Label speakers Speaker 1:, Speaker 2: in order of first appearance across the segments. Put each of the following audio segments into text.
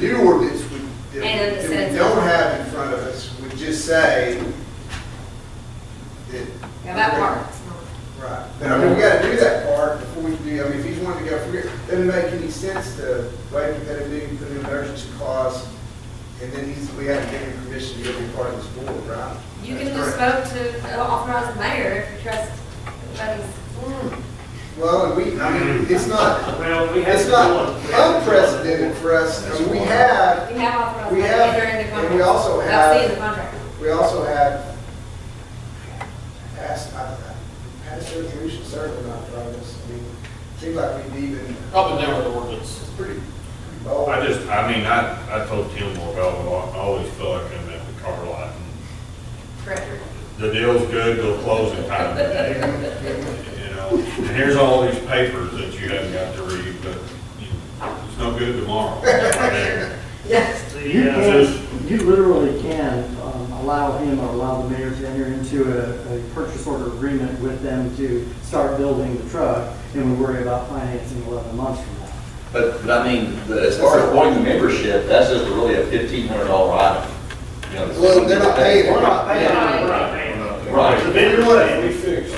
Speaker 1: new ordinance would,
Speaker 2: And
Speaker 1: that
Speaker 2: of
Speaker 1: we
Speaker 2: the
Speaker 1: that we
Speaker 2: sentence.
Speaker 1: don't have in front of us would just say that.
Speaker 2: Yeah, that part.
Speaker 1: Right, but I mean, we gotta do that part before we do, I mean, if he's wanting to go through, it doesn't make any sense to wait for that to be, put an emergency clause, and then he's, we have to give him permission to be part of this board, right?
Speaker 2: You can
Speaker 1: That's
Speaker 2: just
Speaker 1: correct.
Speaker 2: vote to authorize the mayor if you trust everybody's.
Speaker 1: Well, and we, I mean, it's not,
Speaker 3: Well, we have.
Speaker 1: it's not unprecedented for us, I mean, we have
Speaker 2: We have authorized
Speaker 1: We
Speaker 2: the
Speaker 1: have,
Speaker 2: mayor during the
Speaker 1: and
Speaker 2: contract.
Speaker 1: we also
Speaker 2: I've
Speaker 1: have-
Speaker 2: seen the contract.
Speaker 1: We also uh, have passed, I don't know, passed resolution certainly not driving us. I mean, seems like we've even,
Speaker 4: Up and down the ordinance.
Speaker 1: it's pretty bold.
Speaker 5: I just, I mean, I, I told Tim more about it, I always feel like I'm at the car lot. and
Speaker 2: Correct.
Speaker 5: The deal's good, they'll close in time today, you know? And here's all these papers that you haven't got to read, but you know, it's no good tomorrow.
Speaker 2: Yes.
Speaker 6: You
Speaker 3: The, uh,
Speaker 6: can, you literally can um, allow him or allow the mayor to enter into a, a purchase order agreement with them to start building the truck, and we worry about financing eleven months from now.
Speaker 7: But, but I mean, the- as far as wanting the membership, that's just really a fifteen hundred dollar item. You know, it's-
Speaker 1: Well, they're not paying.
Speaker 3: We're not paying,
Speaker 2: Yeah.
Speaker 3: we're not paying.
Speaker 7: Right.
Speaker 3: The bigger one, we fix.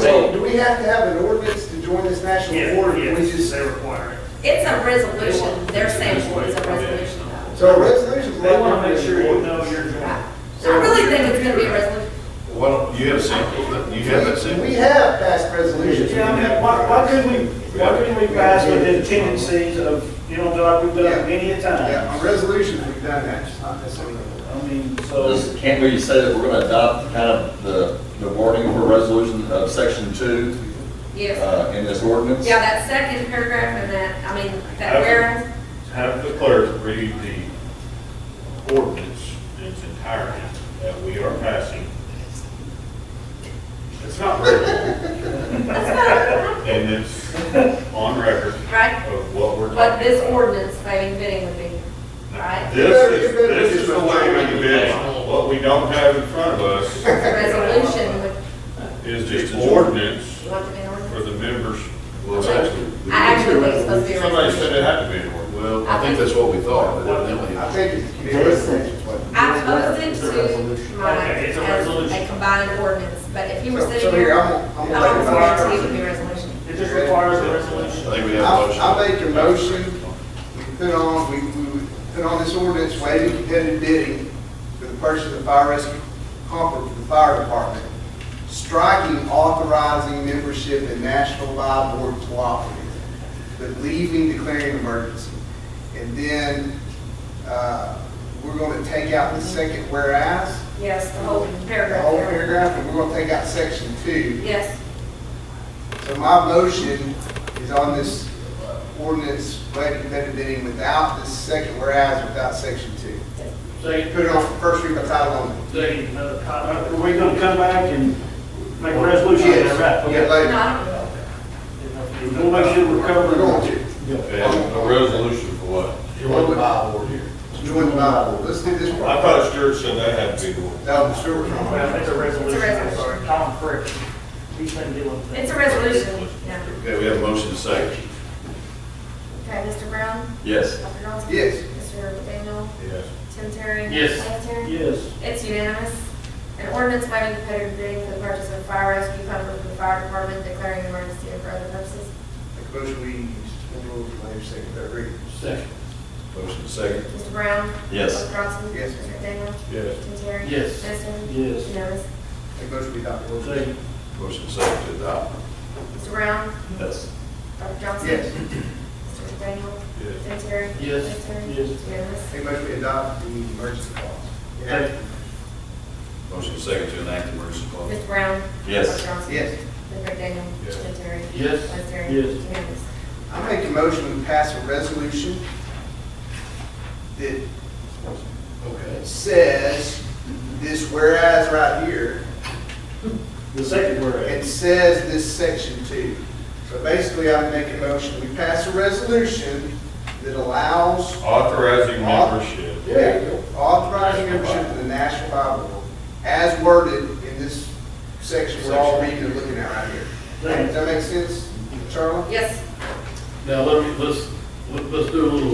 Speaker 1: Wait, do we have to have an ordinance to join this national
Speaker 3: Yeah,
Speaker 1: board? or
Speaker 3: yeah,
Speaker 1: do we just-
Speaker 3: they require it.
Speaker 2: It's a resolution, they're saying it's a resolution though.
Speaker 1: So a resolution's.
Speaker 3: They want to make sure you know you're joining.
Speaker 2: I really think it's gonna be a resolution.
Speaker 4: Well, you have sample, that- you have that sample?
Speaker 1: We have passed resolutions.
Speaker 3: Yeah, I mean, why, why couldn't we, why couldn't we pass within tendencies of, you know, like we've done many a
Speaker 1: Yeah, on
Speaker 3: time?
Speaker 1: resolutions, we've done that, just not necessarily.
Speaker 3: I mean,
Speaker 7: So
Speaker 3: so,
Speaker 7: this, can't we say that we're gonna adopt kind of the, the wording for resolution of section two,
Speaker 2: Yes.
Speaker 7: uh, in this ordinance?
Speaker 2: Yeah, that second paragraph and that, I mean, that
Speaker 5: Okay.
Speaker 2: where,
Speaker 5: Have the clerk read the ordinance in its entirety that we are passing. It's not written,
Speaker 2: that's
Speaker 5: and it's on record
Speaker 2: not, right?
Speaker 5: of what we're talking about.
Speaker 2: What this ordinance, paving bidding would be, right?
Speaker 5: This is, this is the way we bid. What we don't have in front of us
Speaker 2: The resolution would,
Speaker 5: is the ordinance
Speaker 2: you want to be an
Speaker 5: for
Speaker 2: ordinance?
Speaker 5: the members.
Speaker 4: Well, that's what we-
Speaker 2: I actually think it's supposed to be a
Speaker 5: Somebody
Speaker 2: resolution.
Speaker 5: said it had to be an ordinance.
Speaker 4: Well, I think that's what we thought, but evidently.
Speaker 1: I think it's.
Speaker 6: They said-
Speaker 2: I posed it to my,
Speaker 3: Okay, it's a
Speaker 2: as
Speaker 3: resolution.
Speaker 2: a combined ordinance, but if you were
Speaker 1: So-
Speaker 2: sitting
Speaker 1: So here,
Speaker 2: here,
Speaker 1: I'm,
Speaker 2: I
Speaker 1: gonna- I'm.
Speaker 2: would
Speaker 1: gonna take a
Speaker 3: I'll-
Speaker 1: motion.
Speaker 2: have it to be a resolution.
Speaker 3: it just requires a resolution.
Speaker 4: I think we have a motion.
Speaker 1: I, I make a motion, we put on, we, we put on this ordinance waiving competitive bidding for the purchase of fire rescue pumper for the fire department, striking authorizing membership in National Live Board Cooperative, but leaving declaring an emergency. And then, uh, we're gonna take out the second whereas,
Speaker 2: Yes, the whole
Speaker 1: the
Speaker 2: paragraph.
Speaker 1: whole
Speaker 2: there.
Speaker 1: paragraph, and we're gonna take out section two.
Speaker 2: Yes,
Speaker 1: So my motion is on this ordinance, waiving competitive bidding without this second whereas, without section two.
Speaker 3: Second,
Speaker 1: Put it on for first read by title only.
Speaker 3: second, another comment. Are we gonna come back and make a resolution?
Speaker 1: Yes.
Speaker 3: Right,
Speaker 2: no,
Speaker 1: Later.
Speaker 2: I don't know.
Speaker 3: okay. We'll make sure we're
Speaker 1: We're
Speaker 3: covering.
Speaker 1: going to.
Speaker 5: And a resolution for what?
Speaker 4: You want the Bible here.
Speaker 1: Join the Bible. Let's do this
Speaker 5: I
Speaker 1: part.
Speaker 5: thought Stuart said that had to be the ordinance.
Speaker 1: No, Stuart, we're
Speaker 3: Well,
Speaker 1: on.
Speaker 3: It's a resolution, I'm
Speaker 2: resolution.
Speaker 3: sorry, Tom Frick, he's been dealing with that.
Speaker 2: It's a resolution, yeah.
Speaker 4: Okay, we have a motion to second.
Speaker 2: Okay, Mr. Brown?
Speaker 7: Yes.
Speaker 2: Dr. Johnson?
Speaker 1: Yes.
Speaker 2: Mr. McDaniel?
Speaker 5: Yes.
Speaker 2: Tim Terry?
Speaker 3: Yes.
Speaker 2: Tim Terry?
Speaker 3: Yes.
Speaker 2: It's unanimous. An ordinance waiving competitive bidding for the purchase of fire rescue pumper for the fire department, declaring an emergency and for other purposes.
Speaker 1: Make a motion, we suspend rules, waive second, third reading.
Speaker 3: Second.
Speaker 4: Motion to second.
Speaker 2: Mr. Brown?
Speaker 7: Yes.
Speaker 2: Dr. Johnson?
Speaker 1: Yes.
Speaker 2: Mr. McDaniel?
Speaker 5: Yes.
Speaker 2: Tim Terry?
Speaker 3: Yes.
Speaker 2: Justin?
Speaker 3: Yes.
Speaker 2: Unanimous.
Speaker 1: Make a motion, we adopt the ordinance.
Speaker 3: Second.
Speaker 4: Motion to second to adopt.
Speaker 2: Mr. Brown?
Speaker 7: Yes.
Speaker 2: Dr. Johnson?
Speaker 1: Yes.
Speaker 2: Mr. McDaniel?
Speaker 5: Yes.
Speaker 2: Tim Terry?
Speaker 3: Yes.
Speaker 2: Tim Terry?
Speaker 3: Yes.
Speaker 2: Unanimous.
Speaker 1: Make a motion, we adopt the emergency clause.
Speaker 3: Second.
Speaker 4: Motion to second to enact emergency clause.
Speaker 2: Mr. Brown?
Speaker 7: Yes.
Speaker 2: Dr. Johnson?
Speaker 1: Yes.
Speaker 2: Mr. McDaniel?
Speaker 5: Yes.
Speaker 2: Tim Terry?
Speaker 3: Yes.
Speaker 2: Tim Terry?
Speaker 3: Yes.
Speaker 2: Unanimous.
Speaker 1: I make a motion, we pass a resolution that
Speaker 4: Okay.
Speaker 1: says this whereas right here
Speaker 3: The second word.
Speaker 1: It says this section two. So basically, I'm making a motion, we pass a resolution that allows
Speaker 5: Authorizing membership.
Speaker 1: authorizing membership of the National Bible as worded in this section we're all reading and looking at right here. Does that make sense, Charlie?
Speaker 2: Yes.
Speaker 8: Now, let me, let's, let's do a little